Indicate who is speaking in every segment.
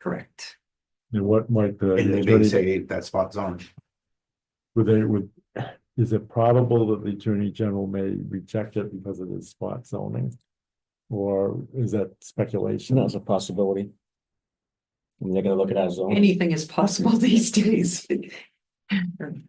Speaker 1: Correct.
Speaker 2: And what might the
Speaker 3: And they may
Speaker 2: attorney,
Speaker 3: say that spot's on.
Speaker 2: would they, would, is it probable that the attorney general may reject it because it is spot zoning? Or is that speculation?
Speaker 4: That's a possibility. And they're gonna look at our zone.
Speaker 1: Anything is possible these days.
Speaker 4: Again,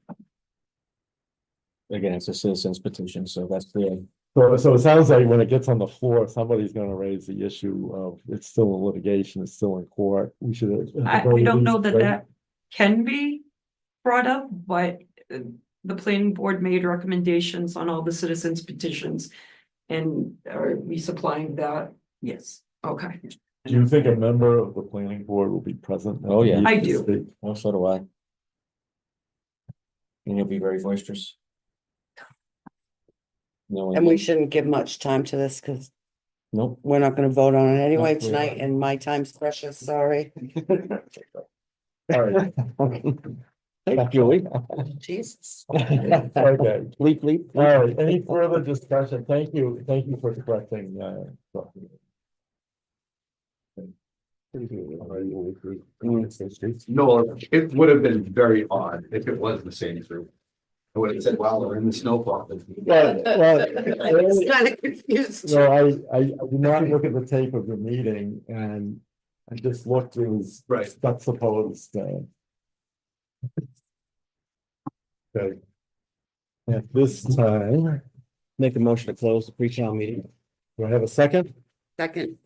Speaker 4: it's a citizen's petition, so that's the,
Speaker 2: So, so it sounds like when it gets on the floor, somebody's gonna raise the issue of it's still in litigation, it's still in court, we should. at the
Speaker 1: I,
Speaker 2: very
Speaker 1: we don't know
Speaker 2: least
Speaker 1: that
Speaker 2: wait.
Speaker 1: that can be brought up, but uh, the planning board made recommendations on all the citizens petitions. And are we supplying that? Yes, okay.
Speaker 2: Do you think a member of the planning board will be present? at
Speaker 4: Oh,
Speaker 2: the
Speaker 4: yeah.
Speaker 2: meeting
Speaker 1: I
Speaker 2: to
Speaker 1: do.
Speaker 2: speak?
Speaker 4: well, so do I. And you'll be very boisterous. No,
Speaker 5: And we shouldn't give much time to this because
Speaker 4: Nope.
Speaker 5: we're not gonna vote on it anyway
Speaker 4: Nope, we're
Speaker 5: tonight
Speaker 4: not.
Speaker 5: and my time's precious, sorry.
Speaker 2: All right,
Speaker 4: Thank you.
Speaker 5: Jesus.
Speaker 2: okay.
Speaker 4: Leap, leap.
Speaker 2: All right, any further discussion? Thank you, thank you for correcting, uh. so-
Speaker 3: No, it would have been very odd if it was the same group. I would have said, wow, we're in the snowplow.
Speaker 2: Well, well,
Speaker 5: Kind of confused.
Speaker 2: No, I, I did not look at the tape of the meeting and I just looked, it was.
Speaker 3: Right.
Speaker 2: That's supposed, uh. Okay. At this time,
Speaker 4: Make a motion to close the pre-town meeting.
Speaker 2: do I have a second?
Speaker 5: Second,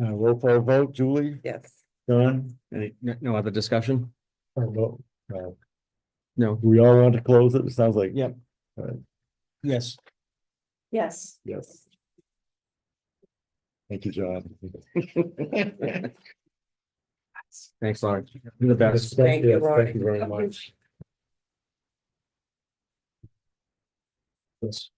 Speaker 2: Uh, roll call vote, Julie,
Speaker 5: yes.
Speaker 2: John,
Speaker 4: Any, no, no other discussion?
Speaker 2: or no? Uh,
Speaker 4: No.
Speaker 2: We all want to close it, it sounds like.
Speaker 4: Yep. Yes.
Speaker 1: Yes.
Speaker 2: Yes. Thank you, John.
Speaker 4: Thanks, Lauren. You're the best.
Speaker 5: Thank you,
Speaker 2: Yes,
Speaker 5: Lauren.
Speaker 2: Thank you very much.
Speaker 4: Yes.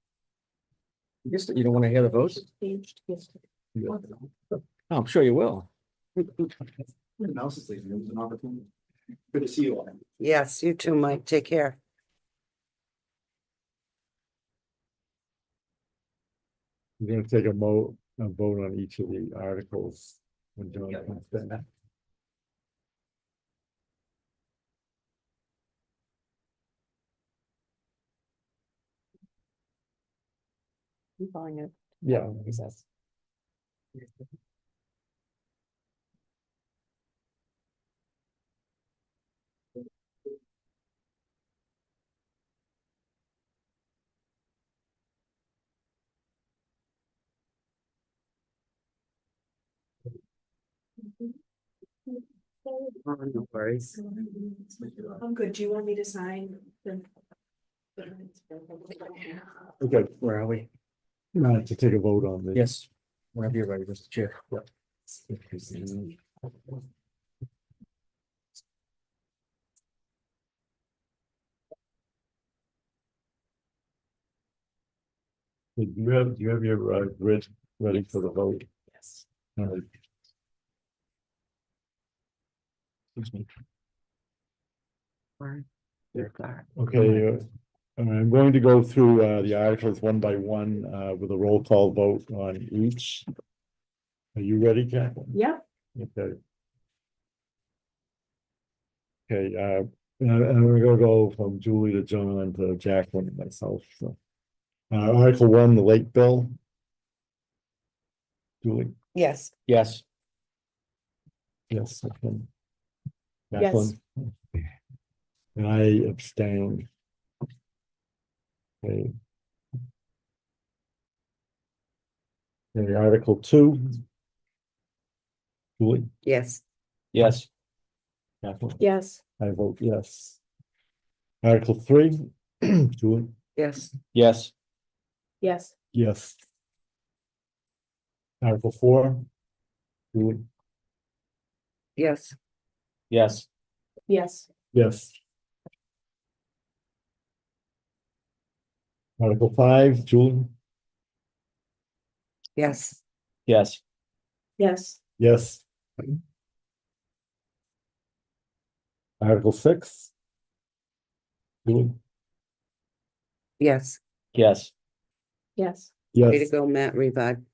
Speaker 4: You guess that you don't want to hear the votes?
Speaker 2: Yeah.
Speaker 4: Oh, I'm sure you will.
Speaker 3: Everyone else is leaving. It was an opportunity. Good to see you all.
Speaker 5: Yes, you too, Mike. Take care.
Speaker 2: We're gonna take a mo, a vote on each of the articles. when John
Speaker 3: Yeah.
Speaker 2: comes back.
Speaker 5: I'm calling it.
Speaker 2: Yeah.
Speaker 5: Oh, No worries.
Speaker 6: I'm good. Do you want me to sign the?
Speaker 2: Okay,
Speaker 4: Where are we?
Speaker 2: now to take a vote on this.
Speaker 4: Yes. Whenever you're ready, Mr. Chair.
Speaker 2: Do you have, do you have your uh, grid ready for the vote?
Speaker 6: Yes.
Speaker 2: All right.
Speaker 4: Excuse me.
Speaker 2: Okay, uh, I'm going to go through uh, the articles one by one uh, with a roll call vote on each. Are you ready, Jacqueline?
Speaker 6: Yeah.
Speaker 2: Okay. Okay, uh, and and we're gonna go from Julie to John to Jacqueline and myself, so. Uh, Article one, the late bill. Julie,
Speaker 5: Yes,
Speaker 4: Yes.
Speaker 2: yes, I can. Jacqueline? And I abstain. Okay. Okay, Article two. Julie,
Speaker 5: yes,
Speaker 4: Yes.
Speaker 2: Jacqueline?
Speaker 6: Yes.
Speaker 2: I vote yes. Article three, Julie?
Speaker 5: yes,
Speaker 4: Yes.
Speaker 6: Yes.
Speaker 2: Yes. Article four, Julie?
Speaker 5: yes.
Speaker 4: Yes.
Speaker 6: Yes.
Speaker 2: Yes. Article five, Julie?
Speaker 5: Yes,
Speaker 4: Yes.
Speaker 6: Yes.
Speaker 2: Yes. Article six? Julie?
Speaker 5: yes.
Speaker 4: Yes.
Speaker 6: Yes.
Speaker 5: Way to
Speaker 2: Yes.
Speaker 5: go, Matt Revive.